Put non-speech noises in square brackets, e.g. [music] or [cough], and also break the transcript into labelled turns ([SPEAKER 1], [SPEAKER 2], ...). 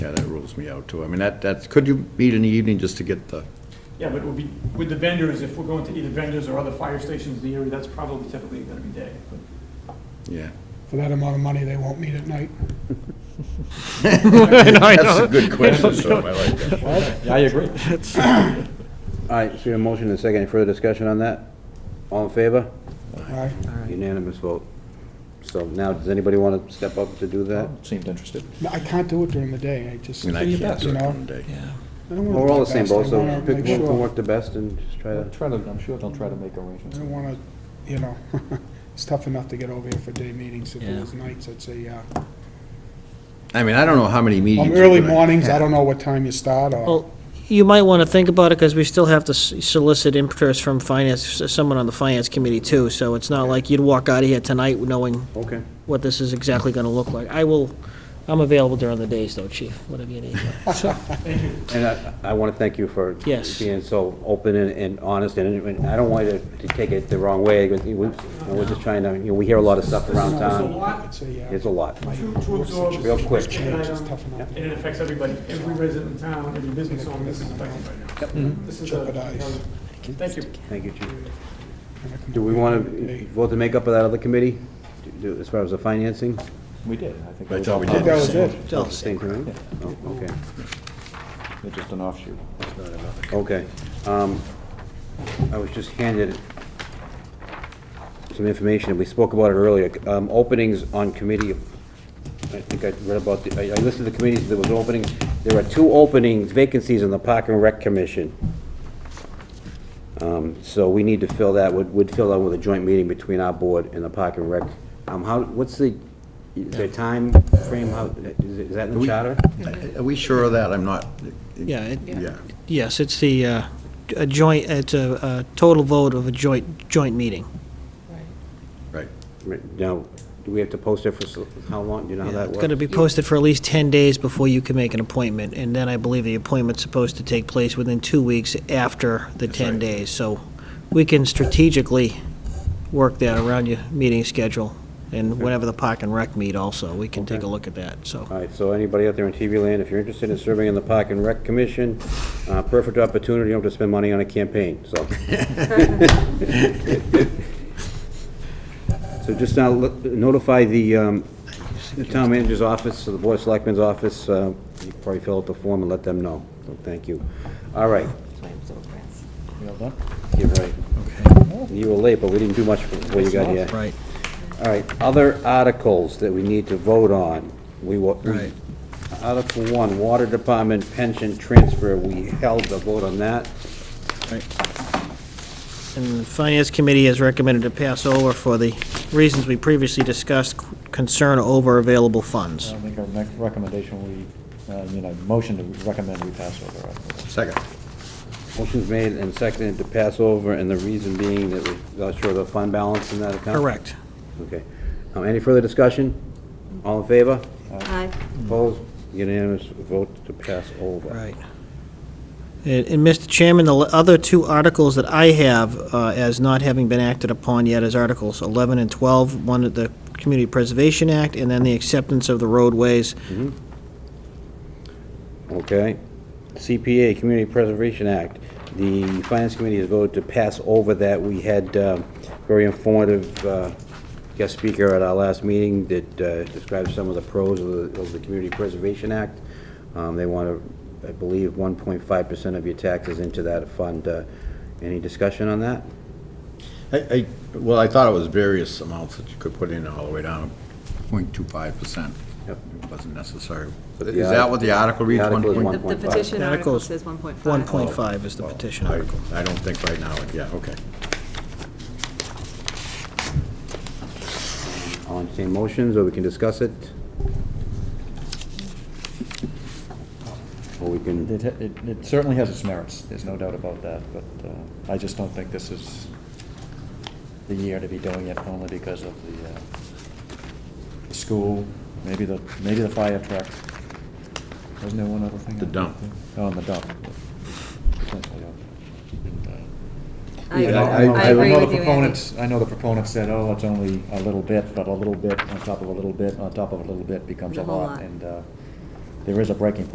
[SPEAKER 1] rules me out too. I mean, that, that's, could you meet in the evening just to get the,
[SPEAKER 2] Yeah, but it would be, with the vendors, if we're going to either vendors or other fire stations in the area, that's probably typically gonna be day.
[SPEAKER 1] yeah.
[SPEAKER 3] [laughs]
[SPEAKER 4] For that amount of money, they won't meet at night.
[SPEAKER 1] That's a good
[SPEAKER 3] [laughs]
[SPEAKER 1] question, so I like that.
[SPEAKER 5] Yeah, I agree.
[SPEAKER 3] All right, so your motion and second, any further discussion on that? All in favor?
[SPEAKER 4] Aye.
[SPEAKER 3] Unanimous vote. So now, does anybody want to step up to do that?
[SPEAKER 4] Oh.
[SPEAKER 5] Seemed interested.
[SPEAKER 4] No, I can't do it during the day, I just.
[SPEAKER 1] I mean, I
[SPEAKER 4] you
[SPEAKER 1] can't do it
[SPEAKER 4] know,
[SPEAKER 1] during the day.
[SPEAKER 5] Yeah.
[SPEAKER 4] I don't wanna
[SPEAKER 3] Well, We're all the
[SPEAKER 4] do
[SPEAKER 3] same
[SPEAKER 4] best. I
[SPEAKER 3] boat, so
[SPEAKER 4] wanna
[SPEAKER 3] pick
[SPEAKER 4] make
[SPEAKER 3] one to
[SPEAKER 4] sure.
[SPEAKER 3] work the best and just try to,
[SPEAKER 5] Try to, I'm sure they'll try to make
[SPEAKER 4] I
[SPEAKER 5] arrangements.
[SPEAKER 4] don't want to, you know, [laughs] it's tough enough to get over here for day meetings. If it
[SPEAKER 5] Yeah.
[SPEAKER 4] was nights, I'd say, yeah.
[SPEAKER 1] I mean, I don't know how many meetings.
[SPEAKER 4] Um,
[SPEAKER 1] you're
[SPEAKER 4] early
[SPEAKER 1] gonna
[SPEAKER 4] mornings, I
[SPEAKER 1] have.
[SPEAKER 4] don't know what time you start or,
[SPEAKER 6] Well, you might want to think about it, because we still have to s- solicit interest from finance, someone on the finance committee too, so it's not like you'd walk out of here tonight knowing
[SPEAKER 3] okay.
[SPEAKER 6] what this is exactly going to look like. I will, I'm available during the days though, chief, whatever you need.
[SPEAKER 3] And I, I want to thank you for
[SPEAKER 6] Yes.
[SPEAKER 3] being so open and, and honest, and, and I don't want you to take it the wrong way, but we, we're just trying to, you know, we hear a lot of stuff around town.
[SPEAKER 4] I'd say, yeah.
[SPEAKER 3] It's a lot.
[SPEAKER 2] Two, two absorbs.
[SPEAKER 3] Real quick.
[SPEAKER 4] Change is tough enough.
[SPEAKER 2] And it affects everybody, every resident in town, every business owner, this is affected right now. This is a-
[SPEAKER 4] Mm-hmm. Jeopardize.
[SPEAKER 2] Thank you.
[SPEAKER 3] Thank you, Chief.
[SPEAKER 4] Kinda come
[SPEAKER 3] Do we
[SPEAKER 4] over
[SPEAKER 3] want
[SPEAKER 4] during the
[SPEAKER 3] to
[SPEAKER 4] day.
[SPEAKER 3] vote to make up of that other committee, Do- do- as far as the financing?
[SPEAKER 5] We did, I think.
[SPEAKER 1] That's all we
[SPEAKER 4] I think
[SPEAKER 1] did.
[SPEAKER 4] that was it.
[SPEAKER 6] So,
[SPEAKER 3] Same thing? Oh, okay.
[SPEAKER 5] It's just an offshoot.
[SPEAKER 3] Okay. um, I was just handed some information, we spoke about it earlier, um, openings on committee, I think I read about, the. I I listed the committees, there was openings, there are two openings, vacancies on the Park and Rec Commission. Um, So we need to fill that, would would fill that with a joint meeting between our board and the Park and Rec. Um, How, what's the, the time frame? how, is it- is that in the
[SPEAKER 1] we-
[SPEAKER 3] charter?
[SPEAKER 1] Are we sure of that? I'm not.
[SPEAKER 6] Yeah, it-
[SPEAKER 1] Yeah.
[SPEAKER 6] yes, it's the, uh, a joint, it's a a total vote of a joint, joint meeting.
[SPEAKER 1] Right.
[SPEAKER 3] Right, Now, do we have to post it for so- how long, do you know how
[SPEAKER 6] Yeah,
[SPEAKER 3] that works?
[SPEAKER 6] It's going to be posted for at least 10 days before you can make an appointment, and then I believe the appointment's supposed to take place within two weeks after the 10
[SPEAKER 1] right.
[SPEAKER 6] days. So we can strategically work that around your meeting schedule, and whenever the Park and Rec meet also, we can take a
[SPEAKER 3] Okay.
[SPEAKER 6] look at that, so.
[SPEAKER 3] All right, so anybody out there in TV land, if you're interested in serving on the Park and Rec Commission, uh, perfect opportunity, you don't have to spend money on a campaign, so. So just now, let- notify the, um, the town manager's office, or the board of selectmen's office, uh, you probably fill out the form and let them know, so thank you. All right,
[SPEAKER 5] You all done?
[SPEAKER 3] you're right. You were late, but we didn't do much before you got here.
[SPEAKER 5] Right.
[SPEAKER 3] All right, other articles that we need to vote on. We wa- we-
[SPEAKER 5] Right.
[SPEAKER 3] Article one, Water Department pension transfer, we held the vote on that.
[SPEAKER 6] And the Finance Committee has recommended to pass over for the reasons we previously discussed, concern over available funds.
[SPEAKER 5] I think our next recommendation, we, uh, you know, motion to recommend we pass over. article.
[SPEAKER 1] Second.
[SPEAKER 3] Motion's made and seconded to pass over, and the reason being that we're not sure of the fund balance in that account?
[SPEAKER 6] Correct.
[SPEAKER 3] Okay. Um, Any further discussion? All in favor?
[SPEAKER 7] Aye.
[SPEAKER 3] Opposed? Unanimous vote to pass over.
[SPEAKER 6] Mm. Right. And, and Mr. Chairman, the other two articles that I have uh, as not having been acted upon yet is Articles 11 and 12, one at the Community Preservation Act, and then the acceptance of the roadways.
[SPEAKER 3] Okay. CPA, Community Preservation Act. The Finance Committee has voted to pass over that. We had um, very informative uh, guest speaker at our last meeting that uh, described some of the pros of the, of the Community Preservation Act. Um, They want to, I believe, 1.5% of your taxes into that fund. Uh, Any discussion on that?
[SPEAKER 1] I, I, well, I thought it was various amounts that you could put in all the way down, point two five percent.
[SPEAKER 3] Yep.
[SPEAKER 1] It wasn't necessary.
[SPEAKER 3] But
[SPEAKER 1] Is
[SPEAKER 3] the
[SPEAKER 1] that
[SPEAKER 3] art-
[SPEAKER 1] what the article
[SPEAKER 3] the
[SPEAKER 1] reads?
[SPEAKER 3] article is
[SPEAKER 1] 1.2?
[SPEAKER 3] one-
[SPEAKER 7] The the
[SPEAKER 3] 1.5.
[SPEAKER 7] petition
[SPEAKER 6] Article
[SPEAKER 7] article
[SPEAKER 6] is
[SPEAKER 7] says 1.5.
[SPEAKER 6] 1.5 is the petition
[SPEAKER 1] I
[SPEAKER 6] article.
[SPEAKER 1] I don't think right now, yeah, okay.
[SPEAKER 3] I'll entertain motions, or we can discuss it. Or we can...
[SPEAKER 5] It, it- it certainly has its merits, there's no doubt about that, but uh, I just don't think this is the year to be doing it only because of the, uh, the school, maybe the, maybe the fire truck. Wasn't there one other thing?
[SPEAKER 1] The dump.
[SPEAKER 5] Oh, and the dump. Potentially, yeah. And, uh,
[SPEAKER 7] I
[SPEAKER 5] and uh,
[SPEAKER 7] I-
[SPEAKER 5] know-
[SPEAKER 7] I
[SPEAKER 5] know
[SPEAKER 7] agree
[SPEAKER 5] the
[SPEAKER 7] with you, Andy.
[SPEAKER 5] proponents- I know the proponents said, oh, it's only a little bit, but a little bit on top of a little bit on top of a little bit becomes a
[SPEAKER 7] A whole
[SPEAKER 5] lot.
[SPEAKER 7] lot.
[SPEAKER 5] And uh, there is a breaking point